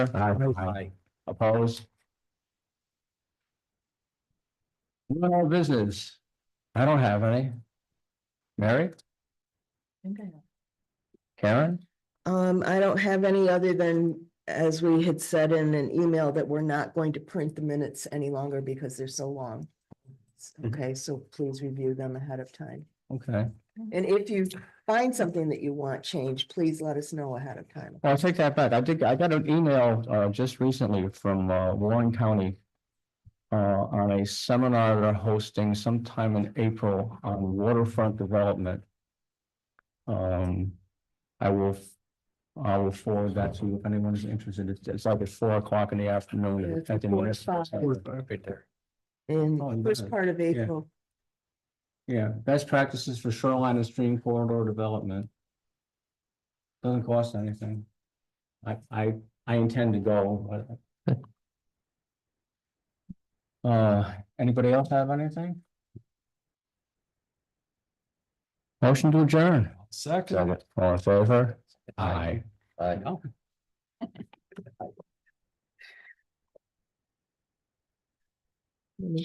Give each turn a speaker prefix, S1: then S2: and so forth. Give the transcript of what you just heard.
S1: Aye. Aye. Opposed? No more business. I don't have any. Mary, Karen?
S2: Um, I don't have any other than, as we had said in an email, that we're not going to print the minutes any longer because they're so long.
S1: Mm-hmm.
S2: Okay, so please review them ahead of time.
S1: Okay,
S2: And if you find something that you want changed, please let us know ahead of time.
S1: I'll take that back. I did, I got an email uh just recently from uh Warren County. Uh, on a seminar they're hosting sometime in April on waterfront development. Um, I will, f- I will forward that to you if anyone's interested. It's it's like at four o'clock in the
S2: Yeah,
S1: afternoon.
S2: it's
S1: I think
S2: four to
S1: municipal
S2: five.
S1: center.
S2: In
S1: Oh,
S2: the
S1: and
S2: first
S1: then-
S2: part of April,
S1: Yeah, best practices for shoreline and stream corridor development. Doesn't cost anything. I, I, I intend to go, but. Uh, anybody else have anything? Motion to adjourn.
S3: Second.
S1: All in favor?
S3: Aye.
S1: Aye.